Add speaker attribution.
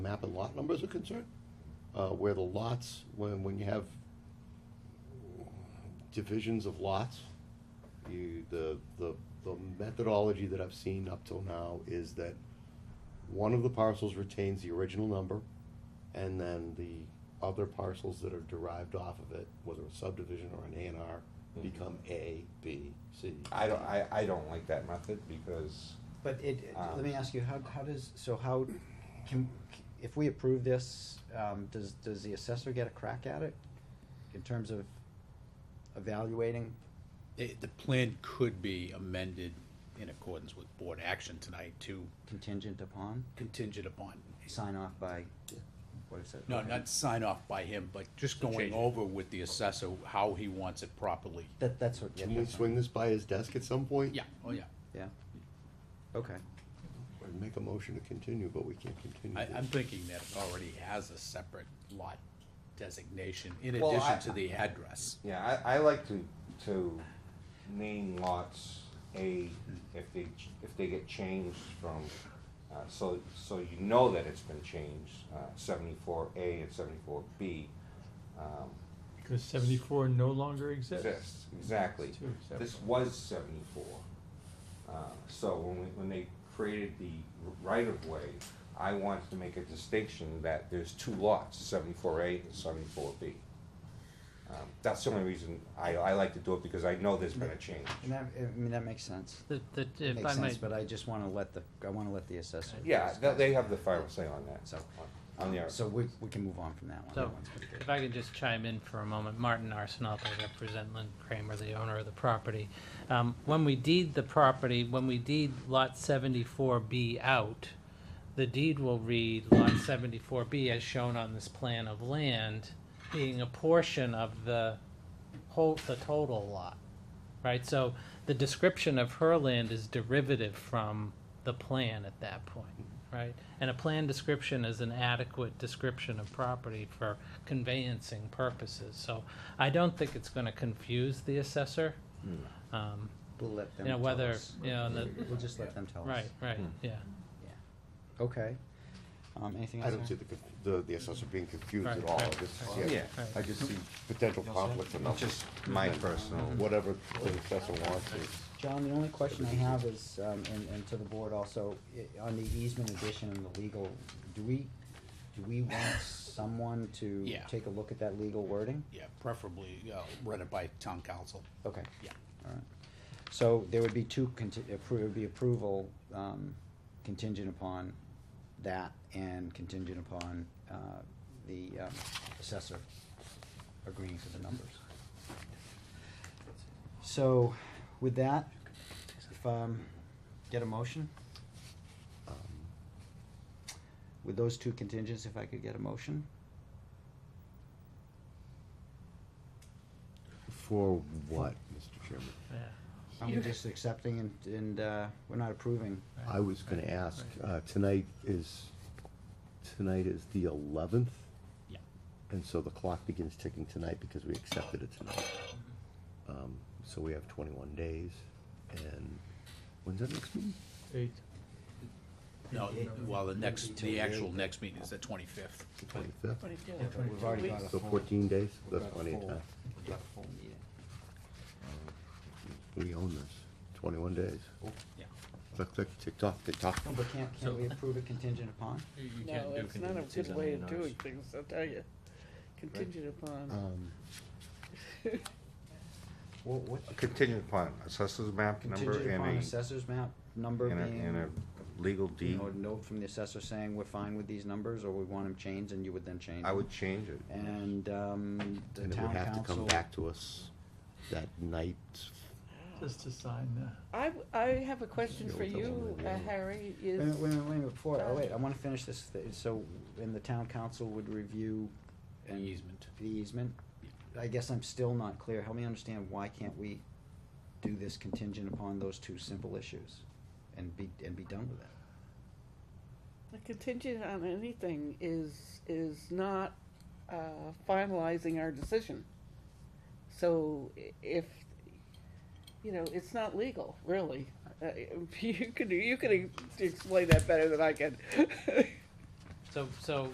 Speaker 1: map and lot numbers are concerned, uh, where the lots, when, when you have divisions of lots, you, the, the, the methodology that I've seen up till now is that one of the parcels retains the original number, and then the other parcels that are derived off of it, whether a subdivision or an A and R, become A, B, C.
Speaker 2: I don't, I, I don't like that method because,
Speaker 3: But it, it-
Speaker 2: Um,
Speaker 3: let me ask you, how, how does, so how, can, if we approve this, um, does, does the assessor get a crack at it? In terms of evaluating,
Speaker 4: eh, The, the plan could be amended in accordance with board action tonight to
Speaker 3: contingent upon,
Speaker 4: contingent upon,
Speaker 3: sign off by, what is it?
Speaker 4: no, not sign off by him, but just going over with the assessor how he wants it properly.
Speaker 3: That, that's what, yeah,
Speaker 1: Can we
Speaker 3: that's fine.
Speaker 1: swing this by his desk at some point?
Speaker 4: Yeah, oh yeah.
Speaker 3: yeah, okay,
Speaker 1: Or make a motion to continue, but we can't continue
Speaker 4: I,
Speaker 1: this.
Speaker 4: I'm thinking that it already has a separate lot designation in
Speaker 2: Well, I-
Speaker 4: addition to the address.
Speaker 2: yeah, I, I like to, to name lots A if they, ch- if they get changed from, uh, so, so you know that it's been changed, uh, seventy-four A and seventy-four B. Um,
Speaker 5: Because seventy-four no longer exists.
Speaker 2: Exists, exactly.
Speaker 5: It's two separate.
Speaker 2: This was seventy-four. Uh, so when we, when they created the right-of-way, I wanted to make a distinction that there's two lots, seventy-four A and seventy-four B. Um, that's the only reason I, I like to do it, because I know there's been a change.
Speaker 3: and that, I mean, that makes sense,
Speaker 6: That, that, if I
Speaker 3: makes sense,
Speaker 6: might,
Speaker 3: but I just wanna let the, I wanna let the assessor.
Speaker 2: Yeah, they,
Speaker 3: discuss.
Speaker 2: they have the final say on that,
Speaker 3: So,
Speaker 2: on the,
Speaker 3: So we, we can move on from that one. That
Speaker 6: So-
Speaker 3: one's pretty good.
Speaker 6: if I could just chime in for a moment, Martin Arsenault, I represent Lynn Kramer, the owner of the property. Um, when we deed the property, when we deed lot seventy-four B out, the deed will read lot seventy-four B as shown on this plan of land, being a portion of the whole, the total lot. Right, so the description of her land is derivative from the plan at that point, right? And a plan description is an adequate description of property for conveyancing purposes, so I don't think it's gonna confuse the assessor.
Speaker 2: hmm.
Speaker 6: Um,
Speaker 3: We'll let them
Speaker 6: you know,
Speaker 3: tell
Speaker 6: whether,
Speaker 3: us.
Speaker 6: you know, the,
Speaker 3: We'll just let them tell us.
Speaker 6: right, right, yeah.
Speaker 3: Okay. Um, anything
Speaker 1: I
Speaker 3: else?
Speaker 1: don't see
Speaker 3: Aaron?
Speaker 1: the, conf- the, the assessor being confused at
Speaker 6: Right,
Speaker 1: all. I
Speaker 6: right, Oh,
Speaker 1: just,
Speaker 6: right.
Speaker 1: yeah,
Speaker 6: Right.
Speaker 1: I just see potential conflict and
Speaker 2: just my personal.
Speaker 1: whatever the assessor wants is.
Speaker 3: John, the only question I have is, um, and, and to the board also, i- on the easement addition and the legal, do we, do we want someone to
Speaker 4: Yeah.
Speaker 3: take a look at that legal wording?
Speaker 4: Yeah, preferably, uh, run it by town council.
Speaker 3: Okay.
Speaker 4: Yeah.
Speaker 3: All right. So there would be two conti- appro- it would be approval, um, contingent upon that and contingent upon, uh, the, um, assessor agreeing to the numbers. So with that, if, um, get a motion?
Speaker 1: um,
Speaker 3: With those two contingents, if I could get a motion?
Speaker 1: For what, Mr. Chairman?
Speaker 6: Yeah.
Speaker 3: Are we just accepting and, and, uh, we're not approving?
Speaker 1: I was gonna ask, uh, tonight is, tonight is the eleventh?
Speaker 4: Yeah.
Speaker 1: And so the clock begins ticking tonight because we accepted it tonight. Um, so we have twenty-one days, and when's that next meeting?
Speaker 5: Eight.
Speaker 4: No, well, the next, the actual next meeting is the twenty-fifth.
Speaker 1: Twenty-fifth?
Speaker 3: We've already got a
Speaker 1: So
Speaker 3: full-
Speaker 1: fourteen days,
Speaker 2: We've
Speaker 1: that's
Speaker 2: got
Speaker 1: plenty of
Speaker 2: full-
Speaker 1: time.
Speaker 2: we've got full meeting.
Speaker 1: We own this, twenty-one days.
Speaker 4: Yeah.
Speaker 1: Click, click, tick tock, tick tock.
Speaker 3: No, but can't, can we approve it contingent upon?
Speaker 7: No, it's not a good way of doing things, I'll tell you. Contingent upon,
Speaker 1: Um, Uh,
Speaker 3: What, what?
Speaker 2: Contingent upon assessor's map number
Speaker 3: Contingent
Speaker 2: and
Speaker 1: E.
Speaker 3: upon
Speaker 2: a,
Speaker 3: assessor's map number
Speaker 2: and a, and a
Speaker 3: being,
Speaker 2: legal
Speaker 3: you
Speaker 2: deed,
Speaker 3: know, a note from the assessor saying we're fine with these numbers, or we want them changed, and you would then change.
Speaker 2: I
Speaker 3: them.
Speaker 2: would change it.
Speaker 3: And, um, the
Speaker 1: And it would
Speaker 3: town
Speaker 1: have to come
Speaker 3: council,
Speaker 1: back to us that night.
Speaker 5: Just to sign the,
Speaker 7: I, I have a question
Speaker 1: Yeah,
Speaker 7: for
Speaker 1: we'll tell them
Speaker 7: you, uh,
Speaker 1: that we-
Speaker 7: Harry,
Speaker 3: wait, a
Speaker 7: is,
Speaker 3: minute, wait, a minute, wait, a minute, before, oh, wait, I wanna finish this, thi- so, and the town council would review
Speaker 4: The
Speaker 3: and
Speaker 4: easement.
Speaker 3: the easement? I guess I'm still not clear, help me understand, why can't we do this contingent upon those two simple issues, and be, and be done with it?
Speaker 7: a contingent on anything is, is not uh, finalizing our decision. So i- if, you know, it's not legal, really. Uh, You could, you could explain that better than I can.
Speaker 6: So, so